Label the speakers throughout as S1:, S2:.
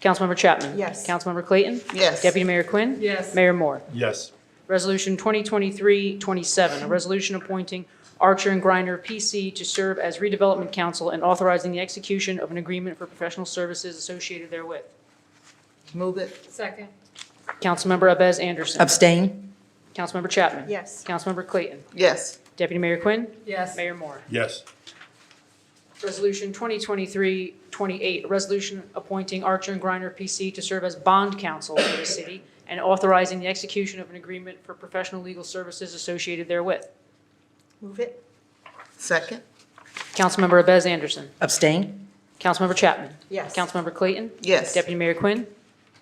S1: Councilmember Chapman?
S2: Yes.
S1: Councilmember Clayton?
S2: Yes.
S1: Deputy Mayor Quinn?
S3: Yes.
S1: Mayor Moore?
S4: Yes.
S1: Resolution 2023-27, a resolution appointing Archer and Griner PC to serve as redevelopment counsel and authorizing the execution of an agreement for professional services associated therewith.
S2: Move it.
S3: Second.
S1: Councilmember Abez Anderson.
S5: Abstain?
S1: Councilmember Chapman.
S2: Yes.
S1: Councilmember Clayton.
S2: Yes.
S1: Deputy Mayor Quinn.
S3: Yes.
S1: Mayor Moore.
S4: Yes.
S1: Resolution 2023-28, a resolution appointing Archer and Griner PC to serve as bond counsel for the city and authorizing the execution of an agreement for professional legal services associated therewith.
S2: Move it. Second.
S1: Councilmember Abez Anderson.
S5: Abstain?
S1: Councilmember Chapman.
S2: Yes.
S1: Councilmember Clayton.
S2: Yes.
S1: Deputy Mayor Quinn.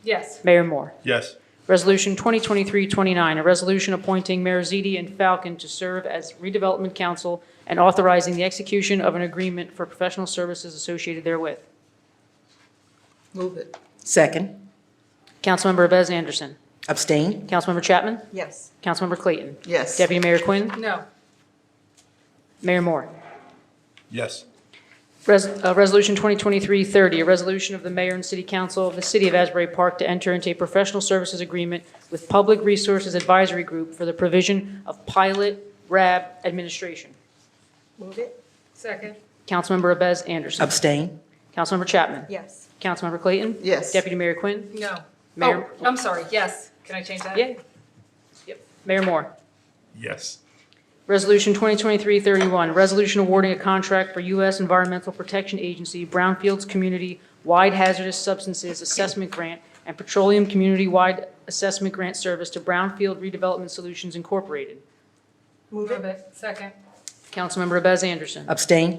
S3: Yes.
S1: Mayor Moore.
S4: Yes.
S1: Resolution 2023-29, a resolution appointing Mayor Ziti and Falcon to serve as redevelopment council and authorizing the execution of an agreement for professional services associated therewith.
S2: Move it.
S5: Second?
S1: Councilmember Abez Anderson.
S5: Abstain?
S1: Councilmember Chapman.
S2: Yes.
S1: Councilmember Clayton.
S2: Yes.
S1: Deputy Mayor Quinn.
S3: No.
S1: Mayor Moore.
S4: Yes.
S1: Res- uh, Resolution 2023-30, a resolution of the mayor and city council of the city of Asbury Park to enter into a professional services agreement with Public Resources Advisory Group for the provision of pilot RAB administration.
S2: Move it.
S3: Second.
S1: Councilmember Abez Anderson.
S5: Abstain?
S1: Councilmember Chapman.
S2: Yes.
S1: Councilmember Clayton.
S2: Yes.
S1: Deputy Mayor Quinn.
S3: No. Oh,
S1: Mayor-
S3: I'm sorry. Yes. Can I change that?
S1: Yeah. Yep. Mayor Moore.
S4: Yes.
S1: Resolution 2023-31, resolution awarding a contract for U.S. Environmental Protection Agency Brownfields Community Wide Hazardous Substances Assessment Grant and Petroleum Community Wide Assessment Grant Service to Brownfield Redevelopment Solutions Incorporated.
S2: Move
S3: Move
S2: it.
S3: it. Second.
S1: Councilmember Abez Anderson.
S5: Abstain?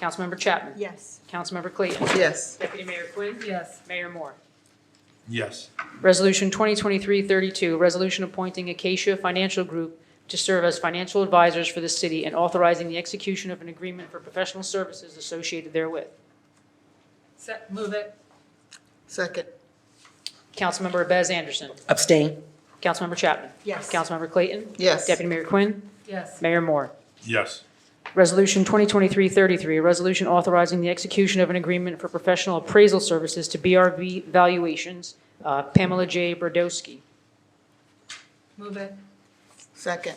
S1: Councilmember Chapman.
S2: Yes.
S1: Councilmember Clayton.
S2: Yes.
S1: Deputy Mayor Quinn.
S3: Yes.
S1: Mayor Moore.
S4: Yes.
S1: Resolution 2023-32, resolution appointing Acacia Financial Group to serve as financial advisors for the city and authorizing the execution of an agreement for professional services associated therewith.
S3: Se- move it.
S2: Second.
S1: Councilmember Abez Anderson.
S5: Abstain?
S1: Councilmember Chapman.
S2: Yes.
S1: Councilmember Clayton.
S2: Yes.
S1: Deputy Mayor Quinn.
S3: Yes.
S1: Mayor Moore.
S4: Yes.
S1: Resolution 2023-33, a resolution authorizing the execution of an agreement for professional appraisal services to BRV Valuations, uh, Pamela J. Brodowski.
S3: Move it.
S2: Second.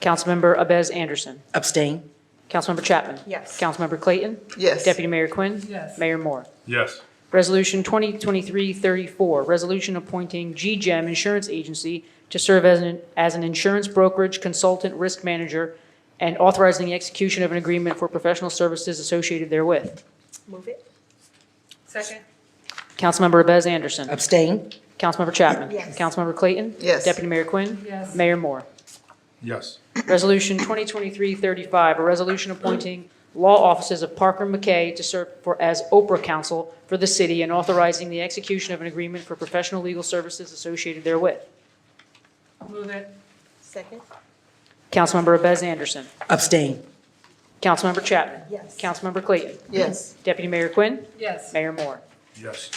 S1: Councilmember Abez Anderson.
S5: Abstain?
S1: Councilmember Chapman.
S2: Yes.
S1: Councilmember Clayton.
S2: Yes.
S1: Deputy Mayor Quinn.
S3: Yes.
S1: Mayor Moore.
S4: Yes.
S1: Resolution 2023-34, resolution appointing GGEM Insurance Agency to serve as an, as an insurance brokerage consultant risk manager and authorizing the execution of an agreement for professional services associated therewith.
S2: Move it.
S3: Second.
S1: Councilmember Abez Anderson.
S5: Abstain?
S1: Councilmember Chapman.
S2: Yes.
S1: Councilmember Clayton.
S2: Yes.
S1: Deputy Mayor Quinn.
S3: Yes.
S1: Mayor Moore.
S4: Yes.
S1: Resolution 2023-35, a resolution appointing law offices of Parker McKay to serve for, as Oprah counsel for the city and authorizing the execution of an agreement for professional legal services associated therewith.
S3: Move it.
S2: Second.
S1: Councilmember Abez Anderson.
S5: Abstain?
S1: Councilmember Chapman.
S2: Yes.
S1: Councilmember Clayton.
S2: Yes.
S1: Deputy Mayor Quinn.
S3: Yes.
S1: Mayor Moore.
S4: Yes.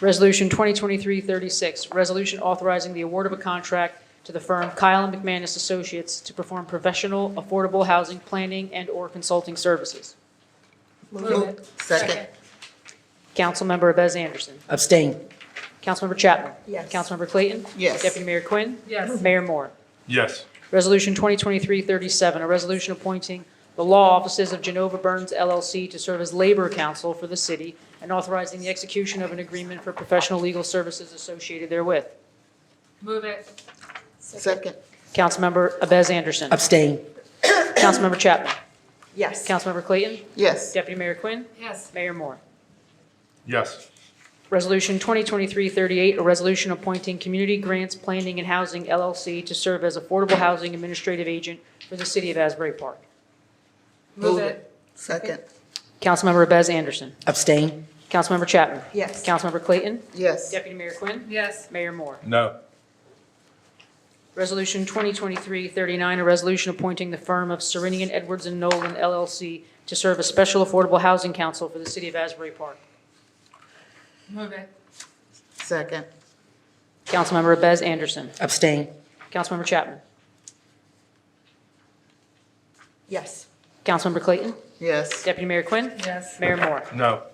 S1: Resolution 2023-36, resolution authorizing the award of a contract to the firm Kyle and McManus Associates to perform professional affordable housing planning and/or consulting services.
S3: Move it.
S2: Second.
S1: Councilmember Abez Anderson.
S5: Abstain?
S1: Councilmember Chapman.
S2: Yes.
S1: Councilmember Clayton.
S2: Yes.
S1: Deputy Mayor Quinn.
S3: Yes.
S1: Mayor Moore.
S4: Yes.
S1: Resolution 2023-37, a resolution appointing the law offices of Genova Burns LLC to serve as labor counsel for the city and authorizing the execution of an agreement for professional legal services associated therewith.
S3: Move it.
S2: Second.
S1: Councilmember Abez Anderson.
S5: Abstain?
S1: Councilmember Chapman.
S2: Yes.
S1: Councilmember Clayton.
S2: Yes.
S1: Deputy Mayor Quinn.
S3: Yes.
S1: Mayor Moore.
S4: Yes.
S1: Resolution 2023-38, a resolution appointing Community Grants Planning and Housing LLC to serve as Affordable Housing Administrative Agent for the City of Asbury Park.
S3: Move it.
S2: Second.
S1: Councilmember Bez Anderson.
S5: Abstain?
S1: Councilmember Chapman.
S2: Yes.
S1: Councilmember Clayton.
S2: Yes.
S1: Deputy Mayor Quinn.
S3: Yes.
S1: Mayor Moore.
S4: No.
S1: Resolution 2023-39, a resolution appointing the firm of Serenian Edwards and Nolan LLC to serve as Special Affordable Housing Council for the City of Asbury Park.
S3: Move it.
S2: Second.
S1: Councilmember Bez Anderson.
S5: Abstain?
S1: Councilmember Chapman.
S2: Yes.
S1: Councilmember Clayton.
S2: Yes.
S1: Deputy Mayor Quinn.
S3: Yes.
S1: Mayor Moore.
S4: No.